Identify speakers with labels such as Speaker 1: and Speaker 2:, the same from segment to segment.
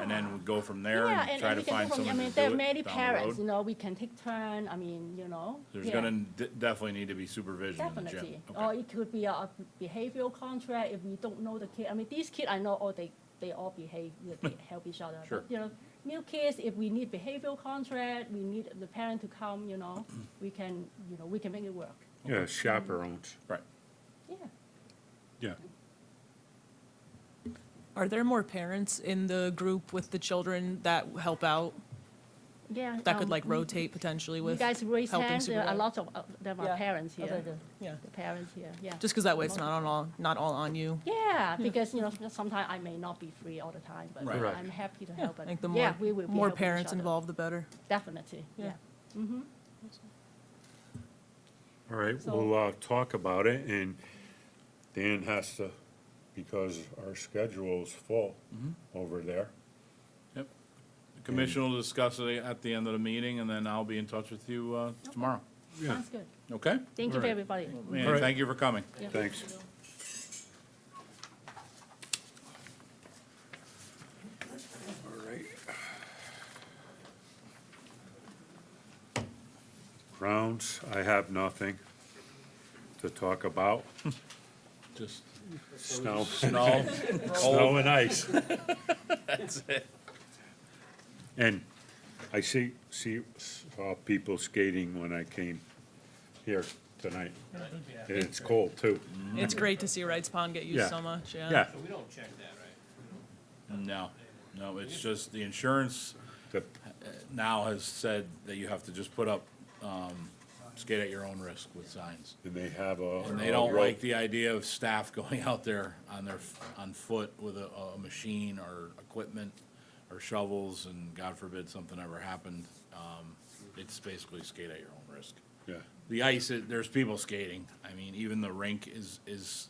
Speaker 1: and then we go from there
Speaker 2: Yeah,
Speaker 1: and try to
Speaker 2: and we can
Speaker 1: find
Speaker 2: go from,
Speaker 1: someone
Speaker 2: I
Speaker 1: to do
Speaker 2: mean,
Speaker 1: it
Speaker 2: there are many
Speaker 1: down the
Speaker 2: parents, you
Speaker 1: road?
Speaker 2: know, we can take turn, I mean, you know.
Speaker 1: There's
Speaker 2: yeah,
Speaker 1: gonna de- definitely need to be supervision in the gym.
Speaker 2: Definitely, Oh,
Speaker 1: Okay.
Speaker 2: or it could be a behavioral contract if we don't know the kid, I mean, these kids, I know, all they, they all behave, you know, they help each other.
Speaker 1: Sure.
Speaker 2: But, You know, new kids, if we need behavioral contract, we need the parent to come, you know, we can, you know, we can make it work,
Speaker 3: Yeah, chaperones.
Speaker 1: Right.
Speaker 2: yeah.
Speaker 3: Yeah.
Speaker 4: Are there more parents in the group with the children that help out,
Speaker 2: Yeah.
Speaker 4: that could
Speaker 2: um,
Speaker 4: like
Speaker 2: you-
Speaker 4: rotate potentially
Speaker 2: You
Speaker 4: with
Speaker 2: guys raise
Speaker 4: helping
Speaker 2: hands, there are
Speaker 4: supervise?
Speaker 2: lots of, uh, there are
Speaker 4: Yeah.
Speaker 2: parents
Speaker 4: Okay,
Speaker 2: here,
Speaker 4: good. Yeah,
Speaker 2: the parents here, yeah.
Speaker 4: just because that way it's not on all, not all on you.
Speaker 2: Yeah,
Speaker 4: Hmm.
Speaker 2: because, you know, sometimes I may not be free all the time, but
Speaker 1: Right.
Speaker 3: Right.
Speaker 2: I'm happy to
Speaker 4: Yeah,
Speaker 2: help.
Speaker 4: I
Speaker 2: but
Speaker 4: think the
Speaker 2: yeah,
Speaker 4: more,
Speaker 2: we will be
Speaker 4: more
Speaker 2: helping each
Speaker 4: parents
Speaker 2: other.
Speaker 4: involved, the better.
Speaker 2: Definitely,
Speaker 4: Yeah.
Speaker 2: yeah. Mhm.
Speaker 3: All right,
Speaker 2: So-
Speaker 3: we'll, uh, talk about it and Dan has to, because our schedule's full over there.
Speaker 1: Yep. The commission will discuss it at the end of the meeting, and then I'll be in touch with you uh, tomorrow.
Speaker 3: Yeah,
Speaker 2: Sounds good.
Speaker 1: Okay?
Speaker 2: Thank you for
Speaker 3: Alright.
Speaker 2: everybody.
Speaker 1: Man,
Speaker 3: Alright.
Speaker 1: thank you for coming.
Speaker 2: Yeah.
Speaker 3: thanks. All right. Grounds, I have nothing to talk about.
Speaker 1: Just
Speaker 3: Snow,
Speaker 1: snow,
Speaker 3: snow and ice.
Speaker 1: that's it.
Speaker 3: And I see, see, saw people skating when I came here tonight. And it's cold too.
Speaker 4: It's great to see Wright's Pond get used
Speaker 3: Yeah.
Speaker 4: so much, yeah.
Speaker 3: Yeah,
Speaker 5: So we don't check that, right?
Speaker 1: No, no, it's just the insurance
Speaker 3: the-
Speaker 1: now has said that you have to just put up, um, skate at your own risk with signs.
Speaker 3: and they have a.
Speaker 1: And they don't like the idea of staff going out there on their, on foot with a, a machine or equipment or shovels, and God forbid something ever happened. Um, It's basically skate at your own risk.
Speaker 3: Yeah,
Speaker 1: The ice, is- there's people skating. I mean, even the rink is, is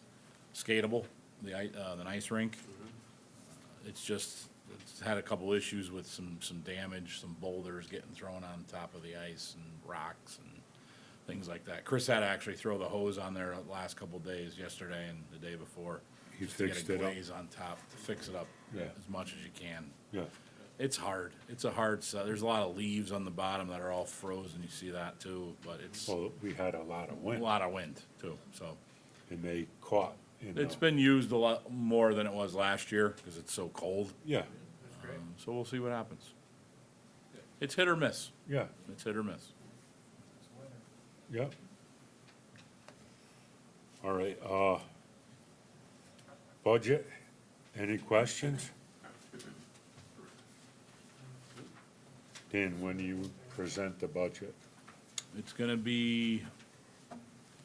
Speaker 1: skatable, the, i- uh, the ice rink.
Speaker 3: Mm-hmm.
Speaker 1: It's just, it's had a couple issues with some, some damage, some boulders getting thrown on top of the ice and rocks and things like that. Chris had to actually throw the hose on there the last couple days, yesterday and the day before.
Speaker 3: He
Speaker 1: just to get a
Speaker 3: fixed it up.
Speaker 1: glaze on top, to fix it up
Speaker 3: Yeah.
Speaker 1: as much as you can.
Speaker 3: yeah,
Speaker 1: It's hard. It's a hard, si- there's a lot of leaves on the bottom that are all frozen. You see that too, but it's.
Speaker 3: well, we had a lot of
Speaker 1: A
Speaker 3: wind
Speaker 1: lot of wind too, so.
Speaker 3: and they caught. in
Speaker 1: It's
Speaker 3: the-
Speaker 1: been used a lot more than it was last year because it's so cold.
Speaker 3: Yeah,
Speaker 1: Um, So we'll see what happens. It's hit or miss.
Speaker 3: yeah,
Speaker 1: It's hit or miss.
Speaker 3: yeah. All right, uh, budget, any questions? Dan, when do you present the budget?
Speaker 1: It's gonna be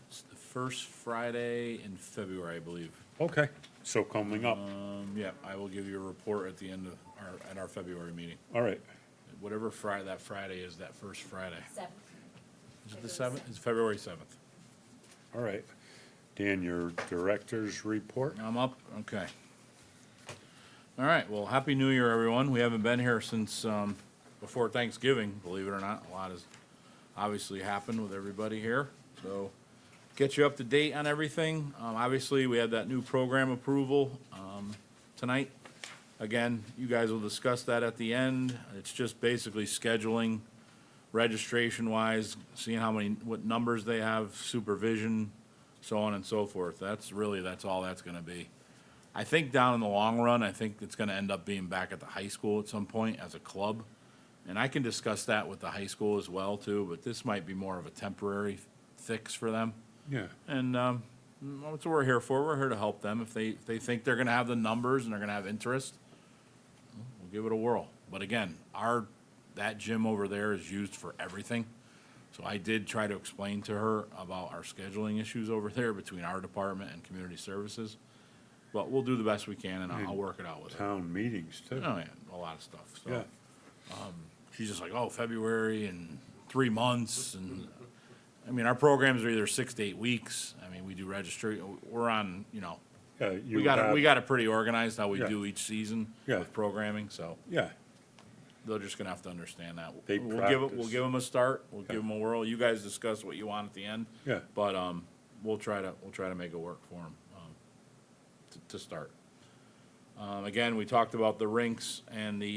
Speaker 1: it's the first Friday in February, I believe.
Speaker 3: Okay, so coming up,
Speaker 1: Um, yeah, I will give you a report at the end of our, at our February meeting.
Speaker 3: all right,
Speaker 1: Whatever Fri- that Friday is, that first Friday.
Speaker 2: Seven.
Speaker 1: Is it the seventh? It's February seventh.
Speaker 3: all right. Dan, your director's report?
Speaker 1: I'm up, okay. All right, well, Happy New Year, everyone. We haven't been here since, um, before Thanksgiving, believe it or not. A lot has obviously happened with everybody here, so get you up to date on everything. Um, obviously, we had that new program approval, um, tonight. Again, you guys will discuss that at the end. It's just basically scheduling, registration wise, seeing how many, what numbers they have, supervision, so on and so forth. That's really, that's all that's gonna be. I think down in the long run, I think it's gonna end up being back at the high school at some point as a club. And I can discuss that with the high school as well too, but this might be more of a temporary fix for them.
Speaker 3: Yeah,
Speaker 1: And um, well, that's what we're here for. We're here to help them. If they, if they think they're going to have the numbers and they're going to have interest, we'll give it a whirl. But again, our, that gym over there is used for everything. So I did try to explain to her about our scheduling issues over there between our department and community services. But we'll do the best we can and I'll, I'll work it out with her.
Speaker 3: town meetings too.
Speaker 1: Oh, yeah, a lot of stuff, so.
Speaker 3: Yeah,
Speaker 1: She's just like, oh, February and three months and, I mean, our programs are either six to eight weeks. I mean, we do registry, we're on, you know,
Speaker 3: yeah.
Speaker 1: we
Speaker 3: you
Speaker 1: got, it-
Speaker 3: have-
Speaker 1: we got it pretty organized how we
Speaker 3: Yeah.
Speaker 1: do each season
Speaker 3: Yeah.
Speaker 1: with programming, so
Speaker 3: Yeah,
Speaker 1: they're just gonna have to understand that.
Speaker 3: They
Speaker 1: We'll give, it- we'll
Speaker 3: practice.
Speaker 1: give them a start, we'll
Speaker 3: Yeah.
Speaker 1: give them a whirl. You guys discuss what you want at the end.
Speaker 3: Yeah.
Speaker 1: But, um, we'll try to, we'll try to make it work for them, um, to, to start. Um, again, we talked about the rinks and the